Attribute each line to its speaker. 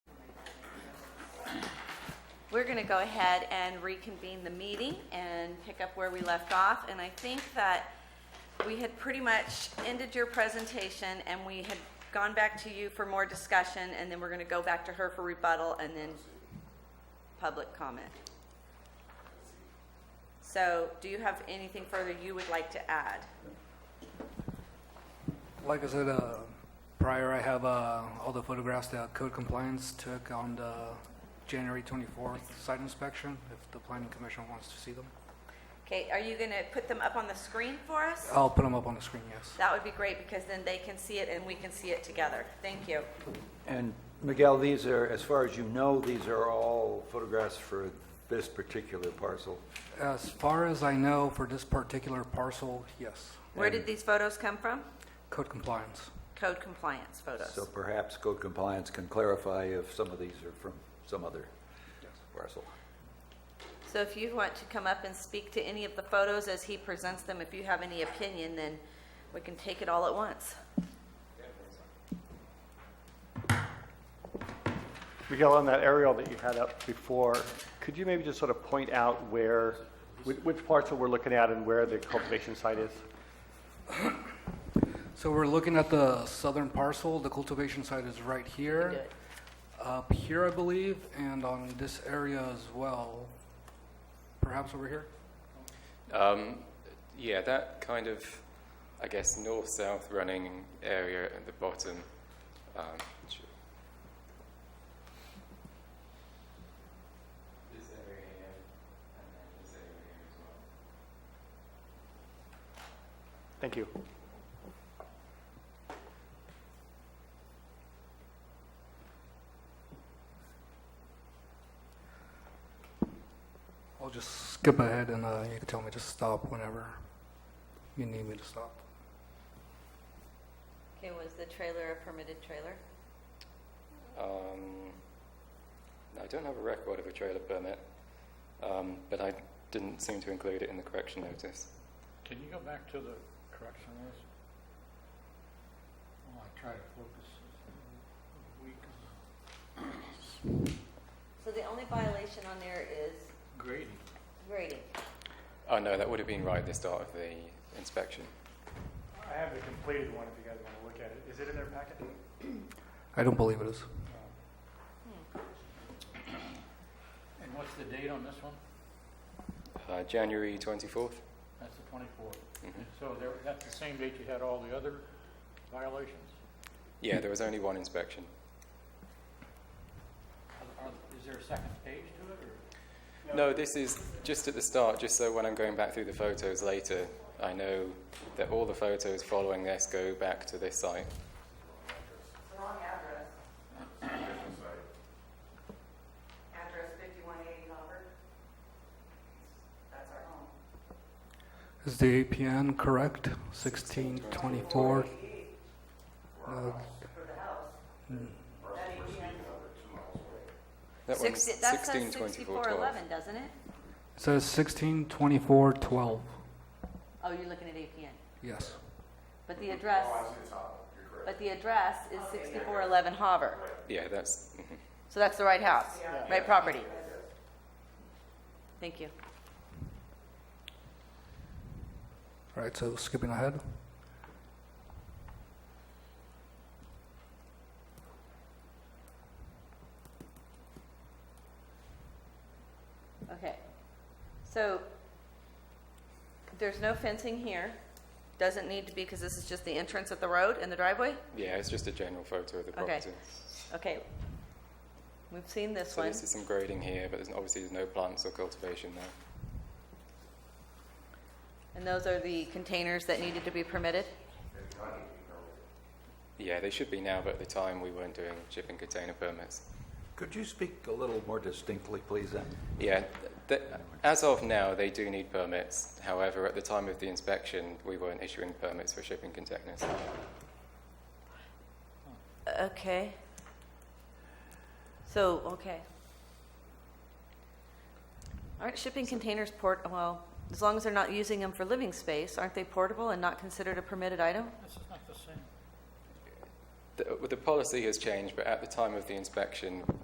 Speaker 1: We're going to go ahead and reconvene the meeting and pick up where we left off. And I think that we had pretty much ended your presentation and we had gone back to you for more discussion and then we're going to go back to her for rebuttal and then public comment. So do you have anything further you would like to add?
Speaker 2: Like I said uh, prior, I have uh, all the photographs that code compliance took on the January 24th site inspection, if the planning commission wants to see them.
Speaker 1: Okay, are you going to put them up on the screen for us?
Speaker 2: I'll put them up on the screen, yes.
Speaker 1: That would be great because then they can see it and we can see it together. Thank you.
Speaker 3: And Miguel, these are, as far as you know, these are all photographs for this particular parcel.
Speaker 2: As far as I know, for this particular parcel, yes,
Speaker 1: Where did these photos come from?
Speaker 2: code compliance.
Speaker 1: Code compliance
Speaker 3: So
Speaker 1: photos.
Speaker 3: perhaps code compliance can clarify if some of these are from some other parcel.
Speaker 1: So if you want to come up and speak to any of the photos as he presents them, if you have any opinion, then we can take it all at once.
Speaker 4: Miguel, on that aerial that you had up before, could you maybe just sort of point out where, which- which parcel we're looking at and where the cultivation site is?
Speaker 2: So we're looking at the southern parcel, the cultivation site is right
Speaker 1: Do
Speaker 2: here,
Speaker 1: it.
Speaker 2: up here, I believe, and on this area as well, perhaps over here?
Speaker 5: Um, yeah, that kind of, I guess, north-south running area at the bottom. Um, sh-
Speaker 4: Thank you.
Speaker 2: I'll just skip ahead and uh, you can tell me to stop whenever you need me to stop.
Speaker 1: Okay, was the trailer a permitted trailer?
Speaker 5: um, I don't have a record of a trailer permit, um, but I didn't seem to include it in the correction notice.
Speaker 6: Can you go back to the correction list? While I try to focus. a week on
Speaker 1: So the only violation on there is
Speaker 6: Grading.
Speaker 1: grading.
Speaker 5: Oh no, that would have been right at the start of the inspection.
Speaker 7: I have the completed one if you guys want to look at it. Is it in their packet?
Speaker 2: I don't believe it is.
Speaker 6: And what's the date on this one?
Speaker 5: Uh, January 24th.
Speaker 6: That's the 24th.
Speaker 5: Mhm.
Speaker 6: So there, that's the same date you had all the other violations?
Speaker 5: Yeah, there was only one inspection.
Speaker 6: Are- are- Is there a second page to it, or?
Speaker 5: No, this is just at the start, just so when I'm going back through the photos later, I know that all the photos following this go back to this site.
Speaker 1: Wrong address. Address fifty-one eighty Hopper. That's our home.
Speaker 2: Is the APN correct? 1624? Uh,
Speaker 5: That one's
Speaker 1: Sixty, that says
Speaker 5: 1624
Speaker 1: sixty-four eleven, doesn't it?
Speaker 2: It says 162412.
Speaker 1: Oh, you're looking at APN.
Speaker 2: Yes.
Speaker 1: But the address. But the address is sixty-four eleven Hover.
Speaker 5: Yeah, that's. mhm.
Speaker 1: So that's the right house, right property. Thank you.
Speaker 2: All right, so skipping ahead.
Speaker 1: Okay. So there's no fencing here. Doesn't need to be because this is just the entrance at the road and the driveway?
Speaker 5: Yeah, it's just a general photo of the
Speaker 1: Okay.
Speaker 5: property.
Speaker 1: Okay. We've seen this
Speaker 5: So
Speaker 1: one.
Speaker 5: this is some grading here, but there's obviously there's no plants or cultivation there.
Speaker 1: And those are the containers that needed to be permitted?
Speaker 5: Yeah, they should be now, but at the time we weren't doing shipping container permits.
Speaker 3: Could you speak a little more distinctly, please, then?
Speaker 5: Yeah, th- as of now, they do need permits. However, at the time of the inspection, we weren't issuing permits for shipping containers.
Speaker 1: Okay. So, okay. Aren't shipping containers port, well, as long as they're not using them for living space, aren't they portable and not considered a permitted item?
Speaker 6: This is not the same.
Speaker 5: The, the policy has changed, but at the time of the inspection,